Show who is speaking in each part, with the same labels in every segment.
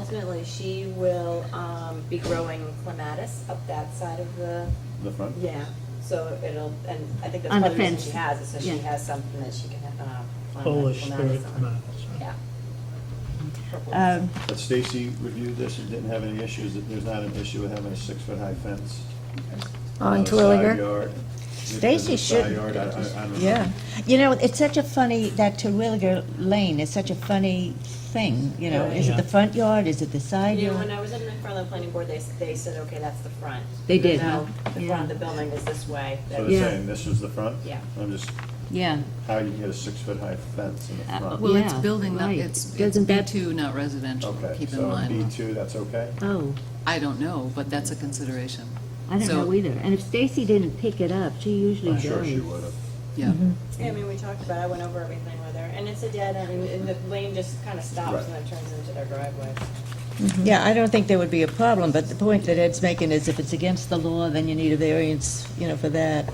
Speaker 1: ultimately, she will, um, be growing clematis up that side of the,
Speaker 2: The front?
Speaker 1: yeah, so it'll, and I think that's
Speaker 3: On the
Speaker 1: part of the reason she
Speaker 3: fence,
Speaker 1: has, is so she
Speaker 3: yeah.
Speaker 1: has something that she can, uh, plant
Speaker 4: Polish
Speaker 1: clematis
Speaker 4: spirit
Speaker 1: on.
Speaker 4: tomatoes.
Speaker 1: Yeah. Purple.
Speaker 3: Um,
Speaker 2: But Stacy reviewed this and didn't have any issues, that there's not an issue with having a six-foot-high fence.
Speaker 3: Oh,
Speaker 2: Uh,
Speaker 5: On
Speaker 2: Twilliger.
Speaker 5: Twilliger?
Speaker 3: Stacy should- Yeah, you know, it's such a funny, that Terwilliger Lane is such a funny thing, you know, is it the
Speaker 4: Yeah.
Speaker 3: front yard, is it the side
Speaker 1: You know, when
Speaker 3: yard?
Speaker 1: I was in front of the planning board, they, s- they said, okay, that's the front.
Speaker 3: They did,
Speaker 1: No,
Speaker 3: huh?
Speaker 1: The front of the building is this way.
Speaker 2: So
Speaker 1: That-
Speaker 2: they're
Speaker 3: Yeah.
Speaker 2: saying this is the front?
Speaker 1: Yeah.
Speaker 2: I'm just,
Speaker 3: Yeah,
Speaker 2: how do you get a six-foot-high fence in the
Speaker 3: Uh,
Speaker 2: front?
Speaker 5: Well, it's
Speaker 3: Yeah,
Speaker 5: building, not-
Speaker 3: right.
Speaker 5: it's, it's
Speaker 3: Doesn't that-
Speaker 5: B2, not residential,
Speaker 2: Okay,
Speaker 5: keep in
Speaker 2: so B
Speaker 5: mind.
Speaker 2: two, that's okay?
Speaker 3: oh,
Speaker 5: I don't know, but that's a consideration.
Speaker 3: I don't
Speaker 5: So-
Speaker 3: know either, and if Stacy didn't pick it up, she usually
Speaker 2: I'm
Speaker 3: does.
Speaker 2: sure she would have.
Speaker 5: Yeah,
Speaker 1: Yeah, I mean, we talked about, it, I went over everything with her, and it's a dead end, and the lane just kind of stops and then turns into their driveway.
Speaker 6: Yeah, I don't think there would be a problem, but the point that Ed's making is if it's against the law, then you need a variance, you know, for that.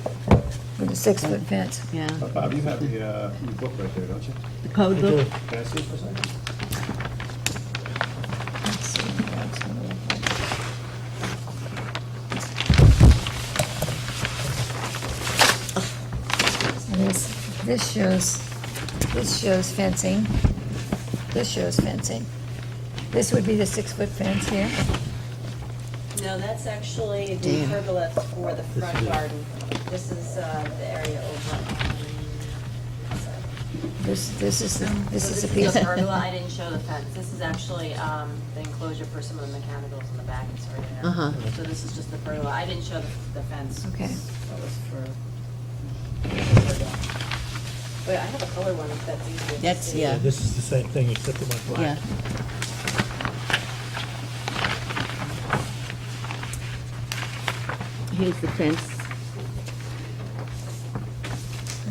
Speaker 5: with a six-foot fence.
Speaker 3: Yeah,
Speaker 2: Uh, Bob, you have the, uh, your book right there, don't you?
Speaker 3: the code book,
Speaker 2: Can I see it for a second?
Speaker 7: This, this shows, this shows fencing. This shows fencing. This would be the six-foot fence here.
Speaker 1: No, that's actually the pergola for the front garden. This is uh, the area over. on- sorry.
Speaker 7: This, this is, the- this
Speaker 1: So
Speaker 7: is a
Speaker 1: the
Speaker 7: piece.
Speaker 1: pergola, I didn't show the fence. This is actually um, the enclosure for some of the mechanicals in the back, it's already there.
Speaker 6: Uh-huh.
Speaker 1: So this is just the pergola. I didn't show the- the fence.
Speaker 7: Okay.
Speaker 1: That was for. Wait, I have a color one if that's easier. to
Speaker 6: That's-
Speaker 1: see.
Speaker 6: yeah.
Speaker 4: This is the same thing except it went
Speaker 6: Yeah.
Speaker 4: black.
Speaker 3: here's the fence,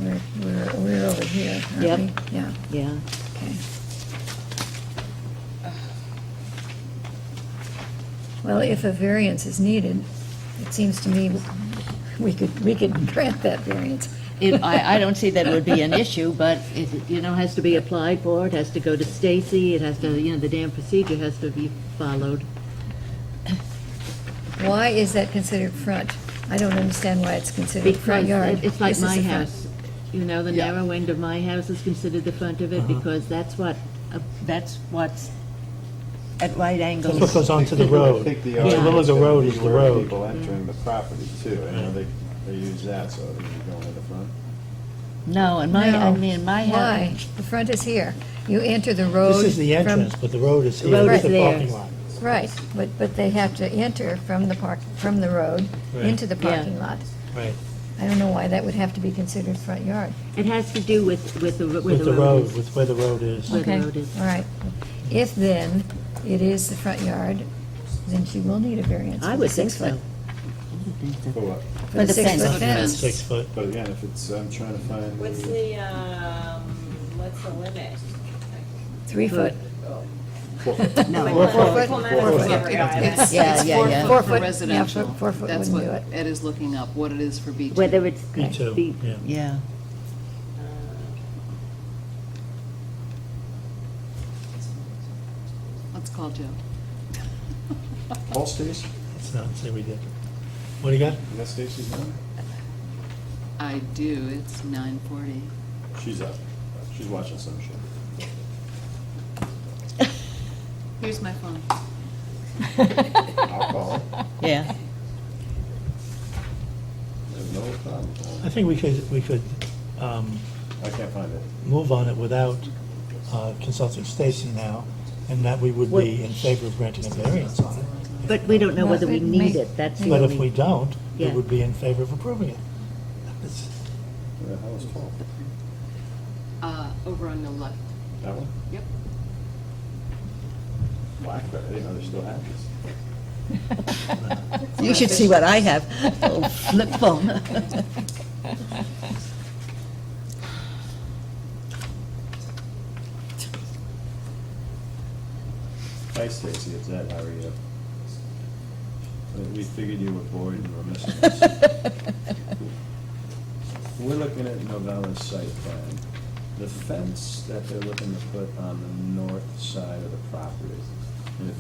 Speaker 7: We're, we're, we're over here,
Speaker 3: Yep.
Speaker 7: aren't we? Yeah,
Speaker 3: yeah.
Speaker 7: okay. Well, if a variance is needed, it seems to me we could, we could grant that variance.
Speaker 3: It, I, I don't see that it would be an issue, but it, you know, has to be applied for, it has to go to Stacy, it has to, you know, the damn procedure has to be followed.
Speaker 7: Why is that considered front? I don't understand why it's considered front
Speaker 3: Because
Speaker 7: yard.
Speaker 3: it- it's like
Speaker 7: This is
Speaker 3: my
Speaker 7: the front.
Speaker 3: house, you know, the
Speaker 5: Yeah.
Speaker 3: narrow end of my house is considered the front of
Speaker 7: Uh-huh.
Speaker 3: it because that's what, uh, that's what's at right
Speaker 4: That's
Speaker 3: angles.
Speaker 4: what goes onto the road.
Speaker 2: I think the
Speaker 4: Each
Speaker 2: argument
Speaker 4: little
Speaker 2: is
Speaker 4: the
Speaker 2: gonna
Speaker 4: road
Speaker 2: be
Speaker 4: is the
Speaker 2: where
Speaker 4: road.
Speaker 2: People entering the property too, I know they, they use that, so they're going in the front.
Speaker 3: No, and my, I
Speaker 7: No.
Speaker 3: mean, my
Speaker 7: Why?
Speaker 3: house,
Speaker 7: The front is here. You enter the road.
Speaker 4: This is the
Speaker 7: from-
Speaker 4: entrance, but the road is
Speaker 3: The
Speaker 4: here,
Speaker 3: road
Speaker 4: it's
Speaker 3: is
Speaker 4: the
Speaker 3: there.
Speaker 4: parking lot.
Speaker 7: Right, but, but they have to enter from the park, from the road
Speaker 4: Right.
Speaker 7: into the
Speaker 3: Yeah.
Speaker 7: parking lot.
Speaker 4: Right.
Speaker 7: I don't know why that would have to be considered front yard.
Speaker 3: it has to do with, with the, where
Speaker 4: With the road,
Speaker 3: is.
Speaker 4: with where the road is.
Speaker 3: Where the
Speaker 7: Okay,
Speaker 3: road is.
Speaker 7: All right. If then it is the front yard, then she will need a variance.
Speaker 3: I
Speaker 7: for the
Speaker 3: would think
Speaker 7: six
Speaker 3: so.
Speaker 7: foot-
Speaker 2: For what?
Speaker 7: For the
Speaker 3: the fence.
Speaker 7: six-foot fence.
Speaker 4: Six foot.
Speaker 2: But again, if it's, I'm trying to find.
Speaker 1: What's the, um, what's the limit?
Speaker 7: Three foot.
Speaker 2: uh,
Speaker 3: No.
Speaker 1: Four
Speaker 7: foot.
Speaker 1: Four foot.
Speaker 5: It's,
Speaker 3: Yeah,
Speaker 5: it's
Speaker 3: yeah,
Speaker 5: four
Speaker 3: yeah.
Speaker 7: Four
Speaker 5: foot for
Speaker 7: foot, yeah,
Speaker 5: residential.
Speaker 7: four- four foot
Speaker 5: That's
Speaker 7: wouldn't
Speaker 5: what
Speaker 7: do
Speaker 5: Ed is looking up, what it is for B2.
Speaker 3: Whether it's.
Speaker 4: Me too,
Speaker 3: be-
Speaker 4: yeah.
Speaker 3: Yeah.
Speaker 1: uh,
Speaker 5: Let's call Joe.
Speaker 2: Paul Stacy?
Speaker 4: It's not, see, we did. What do you got?
Speaker 2: Is that Stacy's number?
Speaker 5: I do, it's 9:40.
Speaker 2: She's up. She's watching some shit.
Speaker 5: Here's my phone.
Speaker 2: I'll call. her.
Speaker 3: Yeah.
Speaker 2: There's no problem.
Speaker 4: I think we could, we could um,
Speaker 2: I can't find it.
Speaker 4: move on it without uh, consulting Stacy now, and that we would be in favor of granting a variance on it.
Speaker 3: But we don't know
Speaker 7: No,
Speaker 3: whether we
Speaker 7: it
Speaker 3: need
Speaker 7: may-
Speaker 3: it, that's the
Speaker 4: But if we
Speaker 3: only.
Speaker 4: don't, we
Speaker 3: Yeah.
Speaker 4: would be in favor of approving it. It's-
Speaker 2: Where the hell is Paul?
Speaker 5: Uh, Over on the left.
Speaker 2: That one?
Speaker 5: Yep.
Speaker 2: Blackberry. I didn't know they still had this.
Speaker 6: You should see what I have. Oh, flip phone.
Speaker 2: Hi Stacy, it's Ed. How are you? Uh, We figured you were bored and were missing us. We're looking at Novella's site plan. The fence that they're looking to put on the north side of the property, and if